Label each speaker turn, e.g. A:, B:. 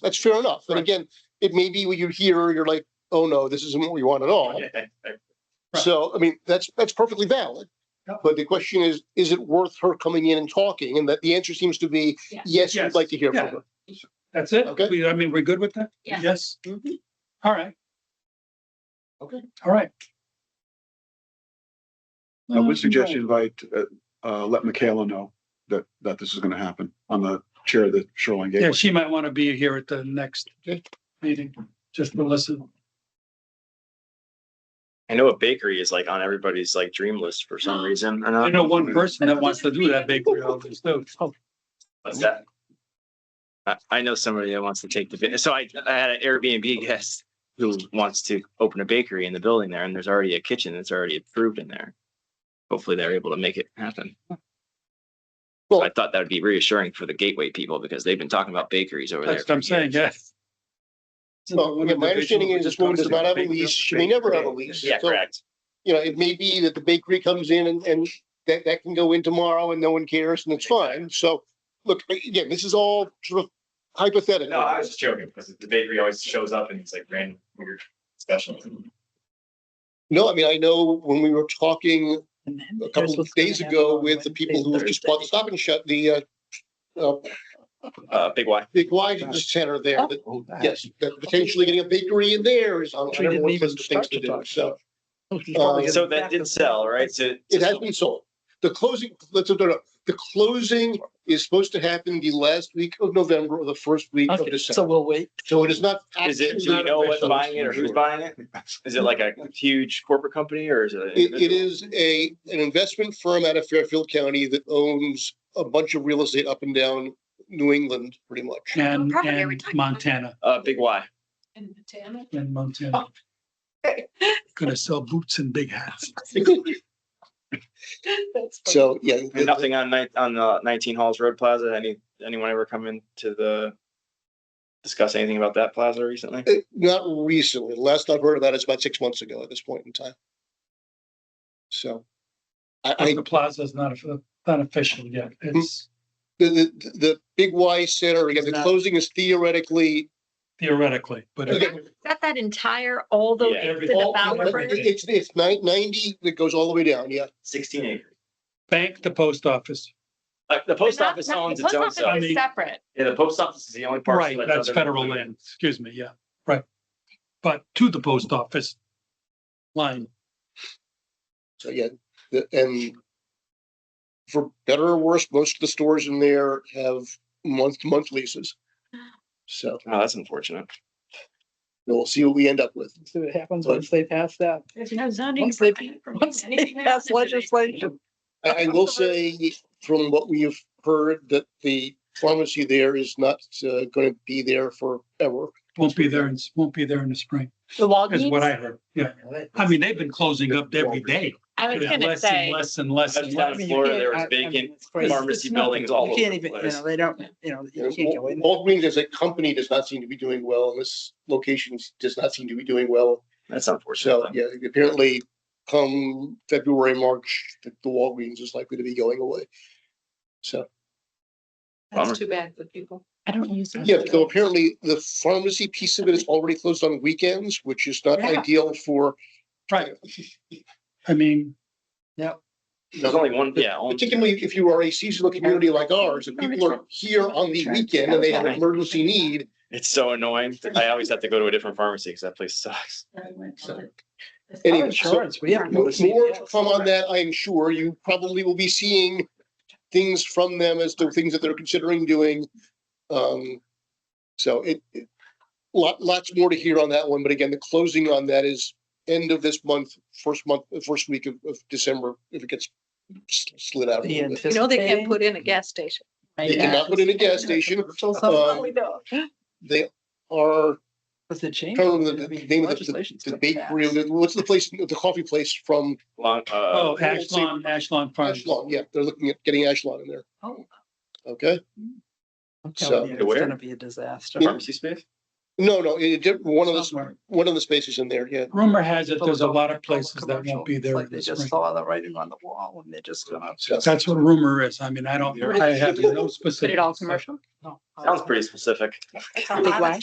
A: That's fair enough. And
B: Right.
A: again, it may be what you hear, you're like, oh no, this isn't what we want at all.
B: Right.
A: So, I mean, that's, that's perfectly valid.
B: Yeah.
A: But the question is, is it worth her coming in and talking? And that the answer seems to be,
C: Yeah.
A: yes, we'd
B: Yes.
A: like to hear from
B: Yeah.
A: her.
B: That's it?
A: Okay.
B: We- I mean, we're good with that?
C: Yeah.
B: Yes.
D: Mm-hmm.
B: All right.
A: Okay.
B: All right.
E: I
B: Um,
E: would suggest you invite, uh, uh, let Michaela know that, that this is gonna happen. I'm the chair of the Shoreline
B: Yeah,
E: Gateway.
B: she might want to be here at the next
A: Okay.
B: meeting, just to listen.
D: I know a bakery is like on everybody's like dream list for some reason or
A: Uh,
B: I
D: not.
B: know one person that wants to do that bakery. always do.
A: Oh,
D: What's that? I, I know somebody that wants to take the, ba- so I, I had an Airbnb guest who wants to open a bakery in the building there and there's already a kitchen that's already approved in there. Hopefully they're able to make it happen. So I
A: Well-
D: thought that would be reassuring for the gateway people because they've been talking about bakeries over there.
B: That's what I'm
D: for years.
B: saying, yes.
A: Well, again, my understanding is this woman does not have a lease. She may never have a lease.
D: Yeah,
A: So,
D: correct.
A: You know, it may be that the bakery comes in and, and that, that can go in tomorrow and no one cares and it's fine. So, look, again, this is all sort of hypothetical.
D: No, I was just joking because the bakery always shows up and it's like random weird special.
A: No, I mean, I know when we were talking a couple of days ago with the people who have just bought the Stop and Shut, the uh, uh,
D: Uh, Big Y.
A: big wine center there, that,
E: Oh, that.
A: yes, that potentially getting a bakery in there is on
B: Which we didn't
A: everyone's
B: even
A: list of things
B: start to
A: to do,
B: talk
A: so Uh,
D: Oh, So that did sell, right? So
A: it has been sold. The closing, let's, no, no, the closing is supposed to happen the last week of November or the first week of
F: Okay, so
A: December.
F: we'll wait.
A: So it is not.
D: Is it,
A: actually
D: do we
A: not
D: know what's
A: official.
D: buying it or who's buying it? Is it like a huge corporate company or is it? an
A: It, it
D: individual?
A: is a, an investment firm out of Fairfield County that owns a bunch of real estate up and down New England, pretty much.
B: And,
C: Probably every
B: and
C: time.
B: Montana,
D: Uh, Big Y.
C: In Montana.
B: and Montana. Gonna sell boots and big hats.
C: That's funny.
A: So, yeah.
D: And nothing on nine, on uh, nineteen Halls Road Plaza. Any, anyone ever come in to the? Discuss anything about that plaza recently?
A: Uh, Not recently. The Last I've heard of that is about six months ago at this point in time. So I, I,
B: The plaza's not, a- not official yet. It's
A: the, the, the Big Y Center, again, the
B: It's not-
A: closing is theoretically.
B: theoretically, but
A: Okay.
B: it-
C: Is that that entire, all the,
D: Yeah.
C: the
B: All-
C: developers?
B: everything.
A: It's, it's nine ninety that goes all the way down, yeah.
D: Sixteen acres.
B: bank, the post office.
D: Like the post
C: Not-
D: office
C: not- the
D: owns its
C: post
D: own
C: office
D: stuff.
B: I
C: is
B: mean-
C: Separate.
D: Yeah, the post office is the only parcel.
B: Right,
D: that
B: that's
D: doesn't-
B: federal land. Excuse me, yeah, right. But to the post office line,
A: So, yeah, the- and for better or worse, most of the stores in there have month to month leases. So
D: Oh, that's unfortunate.
A: we'll see what we end up with.
F: See what happens once they pass that.
C: There's no zoning.
F: Once they,
C: permit for
F: once they
C: anything that
F: pass
C: happens today.
F: legislation.
A: I, I will say from what we have heard that the pharmacy there is not uh, going to be there forever.
B: won't be there, in won't be there in the spring,
F: The
B: is what I
F: logins.
B: heard, yeah. I mean, they've been closing up every day.
C: I was
B: Yeah,
C: gonna
B: less and
C: say,
B: Less and less and
D: That's down
B: less.
D: in Florida, there was vacant pharmacy buildings all
F: You
D: over
F: can't
D: the
F: even, you
D: place.
F: know, they don't, you know, you can't go in. there.
A: Walgreens as a company does not seem to be doing well, and this location does not seem to be doing well.
D: That's unfortunate.
A: So, yeah, apparently come February, March, the the Walgreens is likely to be going away. So,
D: Bummer.
C: that's too bad for people. I don't use. it.
A: yeah, though apparently the pharmacy piece of it is already closed on weekends, which is not
C: Yeah.
A: ideal for,
B: Right. I mean,
D: There's only one, yeah. only-
A: particularly if you are a seasonal community like ours, and people are here on the weekend and they have an emergency need.
D: It's so annoying. I always have to go to a different pharmacy because that place sucks.
F: Our
A: Anyway, so-
F: insurance, we have.
A: More to come on that, I am sure. You probably will be seeing things from them as to things that they're considering doing. Um, so it, it- lot, lots more to hear on that one, but again, the closing on that is end of this month, first month, first week of, of December, if it gets s- slid out. a
F: The
A: little bit.
C: You know, they can't put in a gas station. Oh,
A: They cannot put in a gas station.
F: Somehow
A: Um, They are,
F: Was the change?
A: I don't remember the name of the- the bakery, what's the place, the coffee place from
D: Long, uh,
B: oh, Ashlawn, Ashlawn Farms.
A: Ashlon? Yeah, they're looking at getting Ashlon in there.
F: Oh.
A: Okay?
F: I'm
A: So-
F: telling you,
D: Where?
F: it's gonna be a disaster.
D: pharmacy space?
A: No, no, it did, one of the,
F: Somewhere.
A: one of the spaces in there, yeah.
B: Rumor has it, there's a
F: Those
B: lot of
F: all commercial,
B: places that won't be
F: it's
B: there.
F: Like
B: in
F: they
B: the
F: just
B: spring.
F: saw the writing on the wall and they're just gonna.
B: That's what rumor is. I mean, I don't, I have no specific.
C: Put it all commercial?
F: No.
D: Sounds pretty specific.
C: Big Y?